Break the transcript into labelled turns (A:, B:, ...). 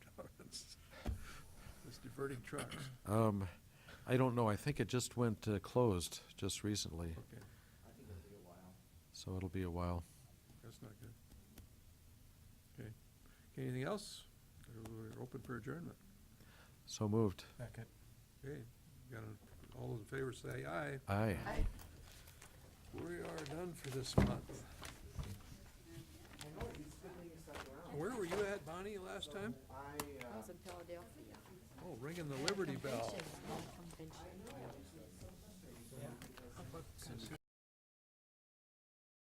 A: Burning trucks,
B: Um, I don't know, I think it just went uh, closed just recently,
A: okay,
B: so it'll be a while.
A: that's not good. Okay, Okay, anything else? Or We're open for adjournment.
B: So moved.
C: Second.
A: Okay, got a, all those in favor say aye.
B: Aye.
A: We are done for this month. Where were you at, Bonnie, last time?
D: I was in Philadelphia.
A: Oh, ringing the Liberty Bell.
D: Convention.